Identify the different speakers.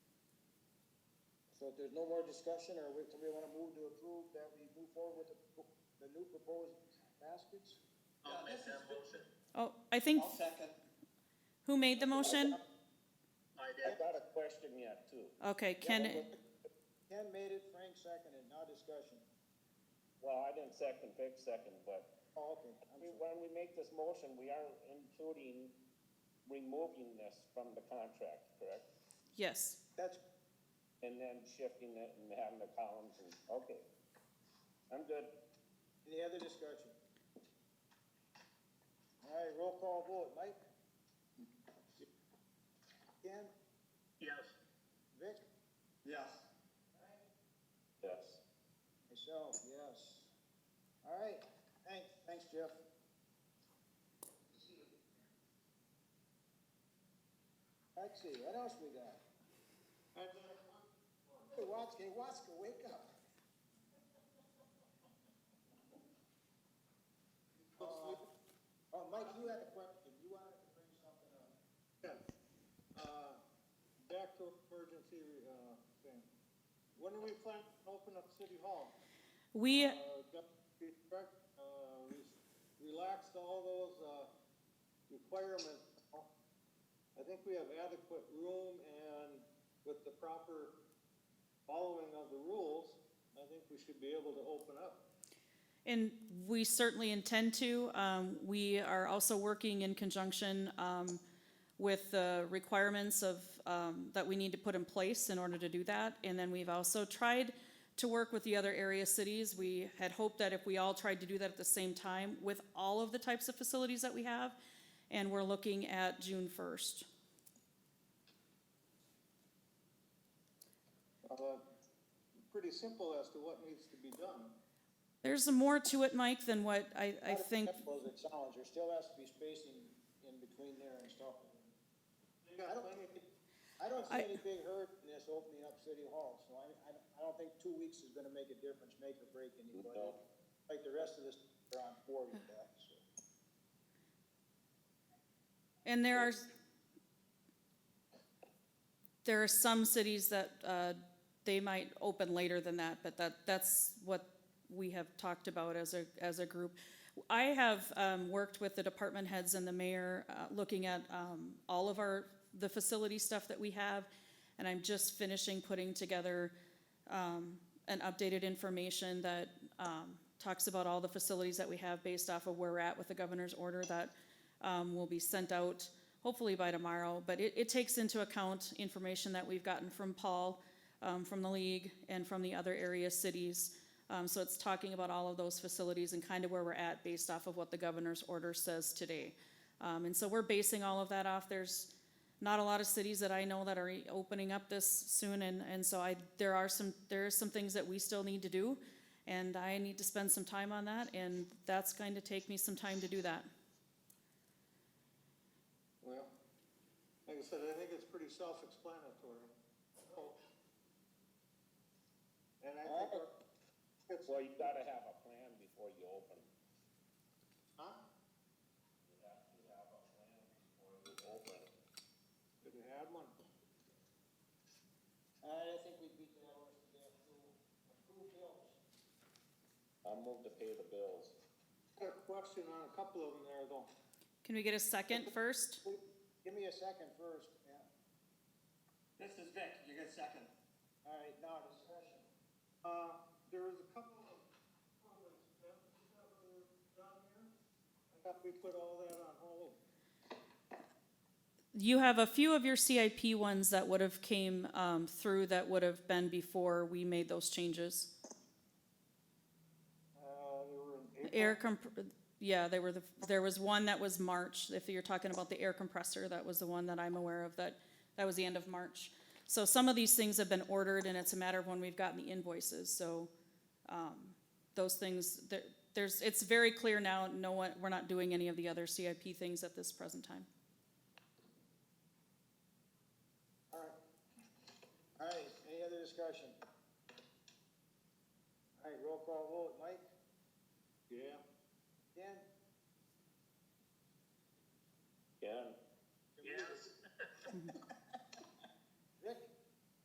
Speaker 1: So if there's no more discussion, or we, somebody wanna move to approve that we move forward with the, pro- the new proposed baskets?
Speaker 2: I'll make that motion.
Speaker 3: Oh, I think,
Speaker 1: second.
Speaker 3: who made the motion?
Speaker 2: I
Speaker 4: I
Speaker 2: did.
Speaker 4: got a question yet too.
Speaker 3: Okay, Ken,
Speaker 1: Ken made it, Frank seconded, now discussion.
Speaker 4: Well, I didn't second, Vic second, but
Speaker 1: Oh, okay, I'm
Speaker 4: we-
Speaker 1: sorry.
Speaker 4: when we make this motion, we are including removing this from the contract, correct?
Speaker 3: yes,
Speaker 1: That's,
Speaker 4: And then shifting it and having the columns and, okay. I'm good.
Speaker 1: any other discussion? All right, roll call vote, Mike? Ken,
Speaker 2: Yes.
Speaker 1: Vic?
Speaker 2: Yes.
Speaker 4: Yes.
Speaker 1: Myself, yes. All right, thanks, thanks, Jeff. Let's see, what else we got? Hey, Watska, hey, Watska, wake up. Uh, Oh, Mike, you had a question, you wanted to bring something up.
Speaker 5: Yes. Uh, Back to emergency, uh, thing. When do we plan to open up City Hall?
Speaker 3: we,
Speaker 5: Uh, Deputy Direct, uh, we relaxed all those, uh, requirements. I think we have adequate room and with the proper following of the rules, I think we should be able to open up.
Speaker 3: and we certainly intend to. Um, we are also working in conjunction, um, with the requirements of, um, that we need to put in place in order to do that. And then we've also tried to work with the other area cities. We had hoped that if we all tried to do that at the same time with all of the types of facilities that we have, and we're looking at June first.
Speaker 5: Uh, Pretty simple as to what needs to be done.
Speaker 3: There's more to it, Mike, than what I, I think,
Speaker 1: Was a challenge, there still has to be spacing in between there and stuff.
Speaker 5: They got
Speaker 1: I don't-
Speaker 5: plenty of-
Speaker 1: I don't see
Speaker 3: I-
Speaker 1: any big hurt in this opening up City Hall, so I, I, don't- I don't think two weeks is gonna make a difference, make or break anybody.
Speaker 4: No.
Speaker 1: Like the rest of this, they're on board with that, so.
Speaker 3: and there are, there are some cities that, uh, they might open later than that, but that, that's what we have talked about as a, as a group. I have, um, worked with the department heads and the mayor, uh, looking at, um, all of our, the facility stuff that we have, and I'm just finishing putting together, um, an updated information that, um, talks about all the facilities that we have based off of where we're at with the governor's order that, um, will be sent out hopefully by tomorrow. But it, it takes into account information that we've gotten from Paul, um, from the league and from the other area cities. Um, so it's talking about all of those facilities and kind of where we're at based off of what the governor's order says today. Um, and so we're basing all of that off. There's not a lot of cities that I know that are e, opening up this soon, and, and so I, there are some, there are some things that we still need to do, and I need to spend some time on that, and that's going to take me some time to do that.
Speaker 5: Well, like I said, I think it's pretty self-explanatory. So- And I think, we're-
Speaker 4: Well, you gotta have a plan before you open.
Speaker 5: huh?
Speaker 4: You have to have a plan before you open.
Speaker 5: Did you add one?
Speaker 1: I think we beat that horse to death, so approve bills.
Speaker 4: I'll move to pay the bills.
Speaker 5: Got a question on a couple of them there though.
Speaker 3: Can we get a second first?
Speaker 1: Give me a second first, yeah.
Speaker 2: This is Vic, you get second.
Speaker 1: All right, now discussion.
Speaker 5: Uh, there was a couple of comments that were done here. I thought we put all that on hold.
Speaker 3: You have a few of your CIP ones that would have came um, through that would have been before we made those changes.
Speaker 5: Uh, they were in April.
Speaker 3: Air comp, yeah, there were the, there was one that was March, if you're talking about the air compressor, that was the one that I'm aware of, that, that was the end of March. So some of these things have been ordered and it's a matter of when we've gotten the invoices, so, um, those things, there, there's, it's very clear now, no one, we're not doing any of the other CIP things at this present time.
Speaker 1: All right. All right, any other discussion? All right, roll call vote, Mike,
Speaker 5: Yeah,
Speaker 1: Dan,